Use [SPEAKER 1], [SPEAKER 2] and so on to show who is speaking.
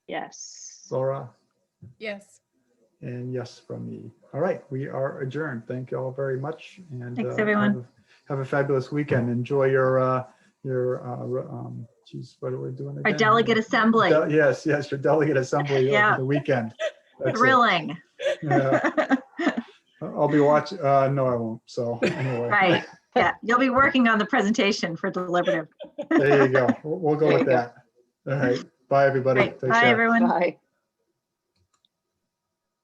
[SPEAKER 1] Yes.
[SPEAKER 2] Laura,
[SPEAKER 3] Yes.
[SPEAKER 2] and yes from me. All right, we are adjourned. Thank you all very much. And
[SPEAKER 1] Thanks,
[SPEAKER 2] uh,
[SPEAKER 1] everyone.
[SPEAKER 2] have a- Have a fabulous weekend. Enjoy your, uh your, uh re- um geez, what are we doing?
[SPEAKER 1] Our
[SPEAKER 2] again?
[SPEAKER 1] delegate assembly,
[SPEAKER 2] Del- Yes, yes, your delegate assembly
[SPEAKER 1] Yeah.
[SPEAKER 2] over the weekend. That's it.
[SPEAKER 1] thrilling.
[SPEAKER 2] Yeah. I'll be watching, uh, no, I won't. So anyway.
[SPEAKER 1] Right. Yeah, you'll be working on the presentation for deliberative.
[SPEAKER 2] There you go. We'll we'll go with that. All right. Bye, everybody.
[SPEAKER 1] Right.
[SPEAKER 2] Take
[SPEAKER 1] Bye,
[SPEAKER 2] care.
[SPEAKER 1] everyone.
[SPEAKER 4] Bye.